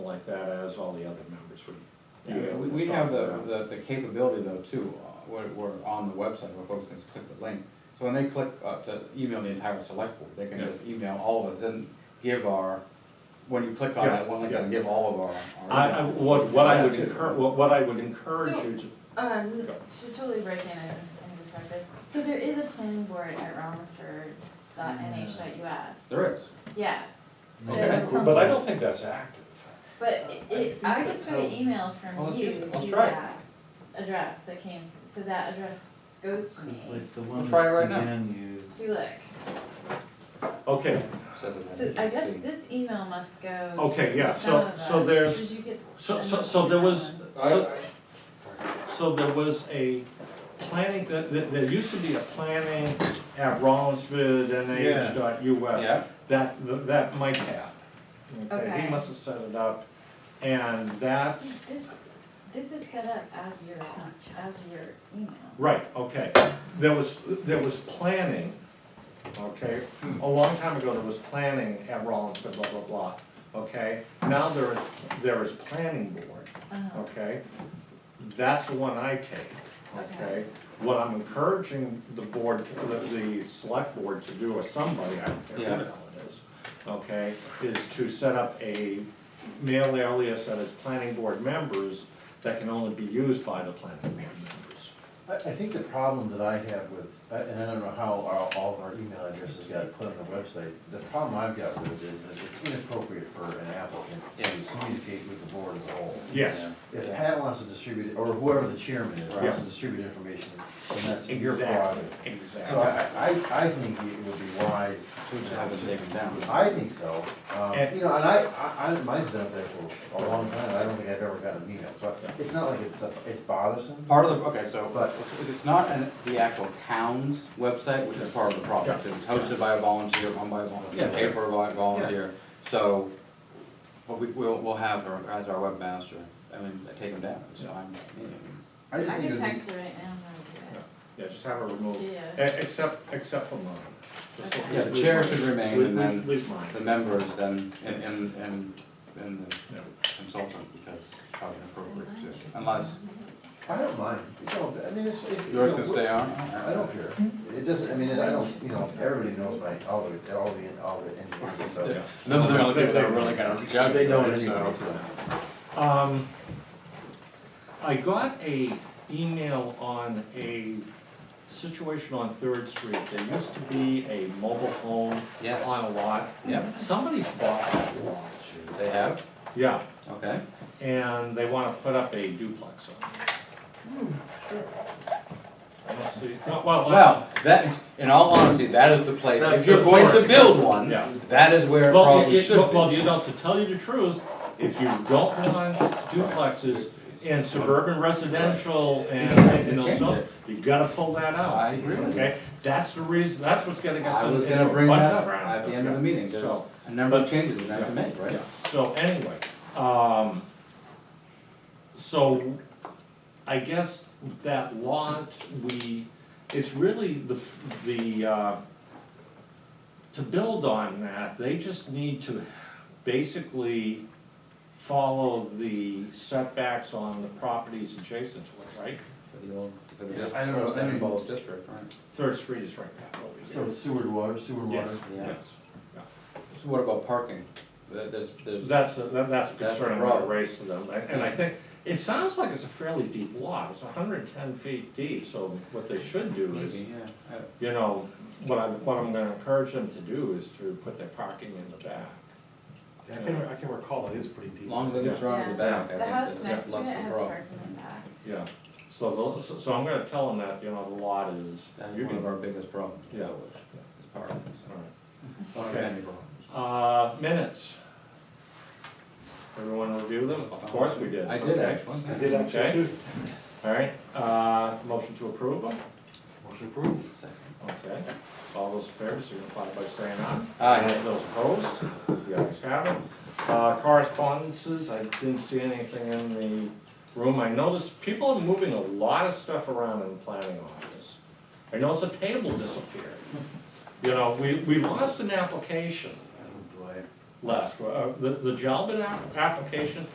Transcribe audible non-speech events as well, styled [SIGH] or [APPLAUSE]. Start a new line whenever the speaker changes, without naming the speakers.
like that as all the other members would.
Yeah, we, we have the, the, the capability though too, uh, we're, we're on the website, where folks can just click the link. So when they click, uh, to email the entire select board, they can
Yeah.
just email all of us, then give our, when you click on
Yeah,
that one link,
yeah.
then give all of our. our
I, I, what, what I would
Yeah, too.
encourage, what, what I would encourage
So-
you to,
Um,
Go.
to totally break in and, and describe this, so there is a planning board at Rollinsford dot NH dot US.
There is,
Yeah,
Okay.
so, um,
but I don't think that's active.
but it- it, I just got an email
Oh,
Well,
from
let's
you
use
to
it. Let's try it.
that address that came, so that address goes to me.
It's like the one
try it
that
right now.
Suzanne used.
See, look,
Okay,
says it.
so I guess this email must go
Okay,
to
yeah,
some
so-
of
so
us.
there's-
Did you get
so, so,
another
so there was,
one?
so, So there was a planning, th- th- there used to be a planning at Rollinsford
Yeah.
NH dot US
Yeah.
that, th- that Mike had.
Okay.
He must have set it up, and that,
See, This, this is set up as your, as your email.
right, okay. There was, there was planning, okay, a long time ago, there was planning at Rollinsford, blah, blah, blah, okay? Now there is, there is planning board.
Uh-huh.
okay? That's the one I take, okay? What I'm encouraging the board, to- the, the select board to do, or somebody, I don't care who
Yeah.
the hell it is, okay? Is to set up a mail alias that is planning board members that can only be used by the planning board members.
I, I think the problem that I have with, uh, and I don't know how our, all of our email addresses got put on the website, the problem I've got with it is that it's inappropriate for an applicant to communicate with the board as a whole.
Yes,
If Pat wants to distribute, it, or whoever the chairman is, wants
Yeah.
to distribute information, then that's your
exactly,
prerogative. So
exactly.
I, I, I think it would be wise
To have it taken down.
I think so, um,
And-
you know, and I, I, I- mine's been up there for a long time, and I don't think I've ever gotten an email, so it's not like it's, a- it's bothersome.
Part of the, okay, so,
But-
if it's not an, the actual town's website, which is part of the problem,
Yeah.
it's hosted by a volunteer, run by a volunteer,
Yeah.
paid for by a volunteer, so, but we, we'll, we'll have her as our webmaster, I mean, take them down, it's fine.
I
I
just think
can
it would be
text her right now. and I'll
Yeah, just have it removed,
do
E-
that.
except, except for mine. Just
Okay.
Yeah, the chair should
leave-
remain
leave-
and then-
Leave mine,
The members then, and, and, and, and the
yeah.
consultant, because it's probably inappropriate too, unless,
I don't mind, you know, I mean, it's, it. you
yours
know,
can stay on?
I don't care, it doesn't, I mean, I don't, you know, everybody knows my, all the, all the, all the engineers, so.
Yeah. Those are the only people that are really gonna judge,
They know it
so-
anyway, so.
Um, I got a email on a situation on Third Street, there used to be a mobile home
Yes.
on a lot.
Yep.
Somebody's bought that lot,
They have,
yeah,
okay,
and they wanna put up a duplex on it.
Hmm,
I don't see, no, well, well,
well, that, in all honesty, that is the place,
That's
if you're
the
going
place.
to build one,
Yeah.
that is where it
well,
probably
it-
should
it-
be.
well, you know, to tell you the truth, if you don't want duplexes in suburban residential and, and
Change
those,
it.
you gotta pull that out.
I agree with you.
Okay, that's the reason, that's what's getting us
I
in-
was
into a
gonna bring
bunch
that
of
up
crap.
at the end of the meeting, there's
So,
a number of
but-
changes we have to make, right?
yeah. So anyway, um, so I guess that lot, we, it's really the, f- the, uh, to build on that, they just need to basically follow the setbacks on the properties adjacent to it, right?
For the old, for the
Yeah,
district,
I don't
for
know, I
Seven
mean-
Falls district, right?
Third Street is right back over here.
So it's sewer to water, sewer to
Yes,
water.
Yeah.
yes.
So what about parking? There- There's, there's,
That's, a- that- that's a
That's a
concern I'm gonna
problem.
raise to them, and and I think, it sounds like it's a fairly deep lot, it's hundred and ten feet deep, so what they should do is,
maybe, yeah, I-
you know, what I, what I'm gonna encourage them to do is to put their parking in the back.
I can, I can recall, it is pretty deep.
as long as it's around to the back, I
Yeah.
think
The house
that's
next
that's
to it
less of a
has
problem.
parking in the back.
Yeah, so, the- so so I'm gonna tell them that, you know, the lot is,
That's
you
one of
can,
our biggest problems.
Yeah.
It's parking, so,
alright.
one of
Okay.
many problems.
Uh, minutes. Everyone review them? Of course we did.
I did
okay.
actually.
[LAUGHS]
I did
Okay.
actually too.
All right, uh, motion to approve them,
Motion approved.
okay, all those in favor signify by saying aye.
Aye.
Those opposed, the ayes have it. Uh, correspondences, I didn't see anything in the room, I noticed people are moving a lot of stuff around in the planning office. I noticed a table disappeared, you know, we, we lost an application,
Oh, boy.
last, uh, the, the Jalbert app- application